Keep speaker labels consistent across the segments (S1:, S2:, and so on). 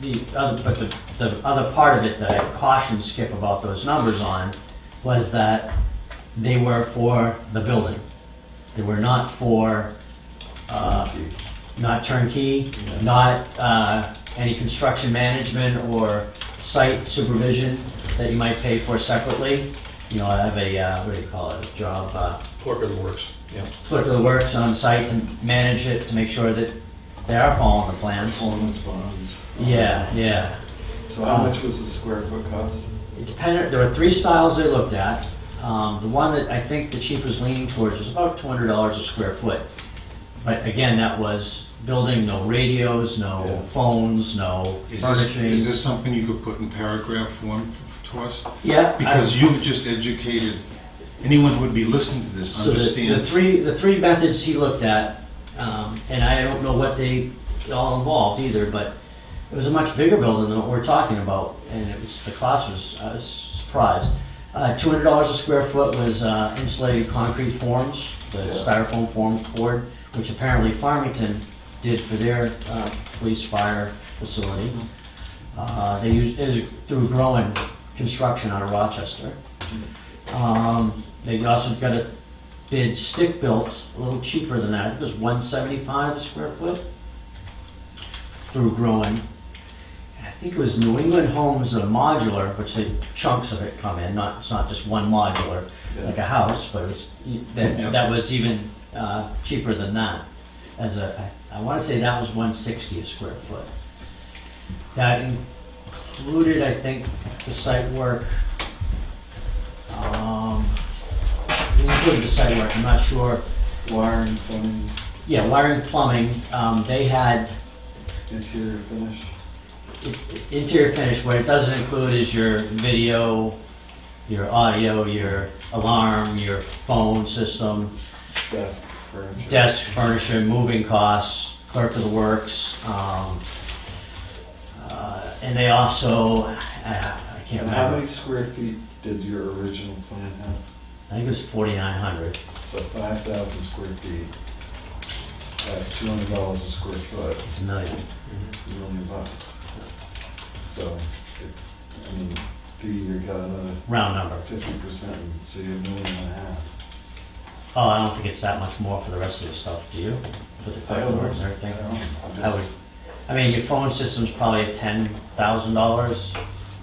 S1: the other, but the, the other part of it that I cautioned Skip about those numbers on was that they were for the building. They were not for, uh, not turnkey, not, uh, any construction management or site supervision that you might pay for separately. You know, I have a, uh, what do you call it, a job, uh,
S2: Clerk of the works, yeah.
S1: clerk of the works on site to manage it, to make sure that they are following the plans.
S3: Performance bonds. Um,
S1: Yeah, Um, yeah.
S3: So how much was the square foot cost?
S1: It depended, there were three styles they looked at. Um, the one that I think the chief was leaning towards was about two hundred dollars a square foot. But again, that was building, no radios,
S3: Yeah.
S1: no phones, no
S4: Is this,
S1: furnishing.
S4: is this something you could put in paragraph form to us?
S1: Yeah. I-
S4: Because you've just educated, anyone who would be listening to this
S1: So the, the
S4: understands.
S1: three, the three methods he looked at, um, and I don't know what they all involved either, but it was a much bigger building than what we're talking about, and it was, the cost was, I was surprised. Uh, two hundred dollars a square foot was, uh, insulated concrete forms, the
S3: Yeah.
S1: styrofoam forms poured, which apparently Farmington did for their, uh, police fire facility. Uh, they used, it was through growing construction out of Rochester. Um, they also got a bid stick built, a little cheaper than that, it was one seventy-five a square foot through growing. And I think it was New England Homes, a modular, which they, chunks of it come in, not, it's not just one modular, like a house, but it's,
S4: Yeah.
S1: that, that was even, uh, cheaper than that. As a, I I wanna say that was one sixty a square foot. That included, I think, the site work, um, it included the site work, I'm not sure.
S3: Wiring, plumbing,
S1: Yeah, wiring, plumbing, um, they had,
S3: interior finish.
S1: interior finish, what it doesn't include is your video, your audio, your alarm, your phone system,
S3: Desk, furniture.
S1: desk furniture, moving costs, clerk of the works, um, uh, and they also, I I can't
S3: And how
S1: remember,
S3: many square feet did your original plan have?
S1: I think it was forty-nine hundred.
S3: So five thousand square feet. At two hundred dollars a square foot,
S1: It's a million.
S3: a million bucks. So, if- I mean, figure you got another
S1: round number.
S3: fifty percent, so you're a million and a half.
S1: Oh, I don't think it's that much more for the rest of the stuff, do you? For the clerk of the works and
S3: I
S1: everything?
S3: don't know. I'm
S1: I
S3: just-
S1: would, I mean, your phone system's probably ten thousand dollars,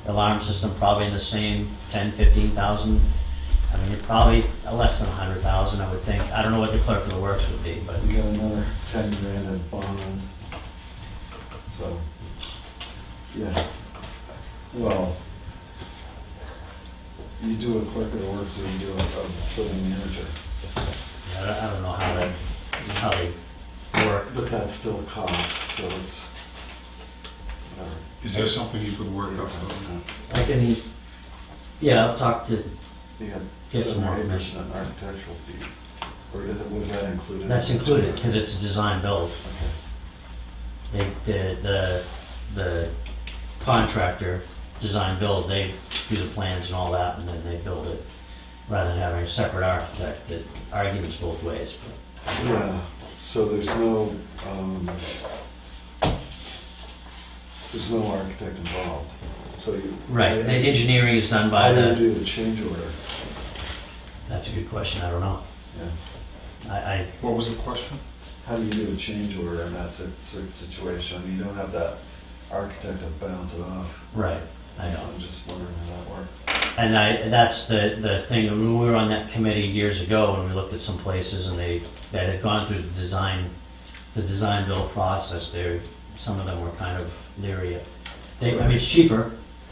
S1: alarm system probably in the same ten, fifteen thousand. I mean, you're probably uh, less than a hundred thousand, I would think. I don't know what the clerk of the works would be, but
S3: We got another ten grand in bond. So, yeah, well, you do a clerk of the works or you do a, a building manager,
S1: I don't, I don't know how they, how they work.
S3: but that's still a cost, so it's. whatever.
S4: Is there something you could work up?
S1: I can, yeah, I'll talk to,
S3: You got
S1: Get some
S3: seven
S1: more
S3: or eight
S1: information.
S3: percent architectural fees, or did- was that included?
S1: that's included, because it's a design build.
S3: Okay.
S1: They, the, the, the contractor, design build, they do the plans and all that, and then they build it, rather than having a separate architect that argues both ways, but
S3: Yeah, so there's no, um, there's no architect involved, so you.
S1: Right, the
S3: How
S1: engineering is done by
S3: do you
S1: the,
S3: do the change order?
S1: that's a good question, I don't know.
S3: Yeah.
S1: I, I,
S4: What was the question?
S3: How do you do a change order in that si- sort of situation? You don't have that architect to bounce it off.
S1: right, I know.
S3: I'm just wondering how that works.
S1: And I, that's the, the thing, when we were on that committee years ago, and we looked at some places, and they, that had gone through the design, the design build process, there, some of them were kind of leery. They, I mean, it's cheaper,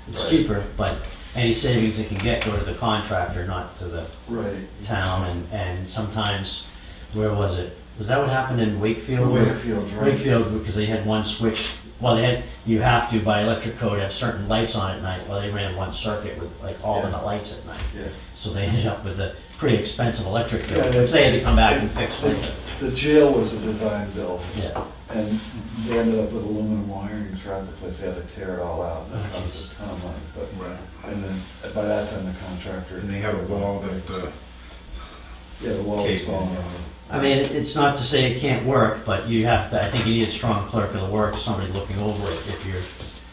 S1: it's
S3: Right.
S1: cheaper, but any savings they can get go to the contractor, not to the
S3: Right.
S1: town, and, and sometimes, where was it? Was that what happened in Wakefield? where-
S3: Wakefield, right?
S1: Wakefield, because they had one switch, well, they had, you have to by electric code have certain lights on at night, well, they ran one circuit with like all of the lights at night.
S3: Yeah.
S1: So they ended up with a pretty expensive electric bill,
S3: Yeah, they-
S1: which they had to come back and fix later.
S3: The jail was a design build,
S1: Yeah,
S3: and they ended up with aluminum wiring throughout the place. They had to tear it all out, and that
S1: Oh,
S3: cost a ton of money, but
S4: Right.
S3: And then uh, by that time, the contractor.
S4: And they have a wall that, uh,
S3: Yeah, the wall was
S4: Caved in.
S3: falling over.
S1: I mean, it- it's not to say it can't work, but you have to, I think you need a strong clerk of the work, somebody looking over it if you're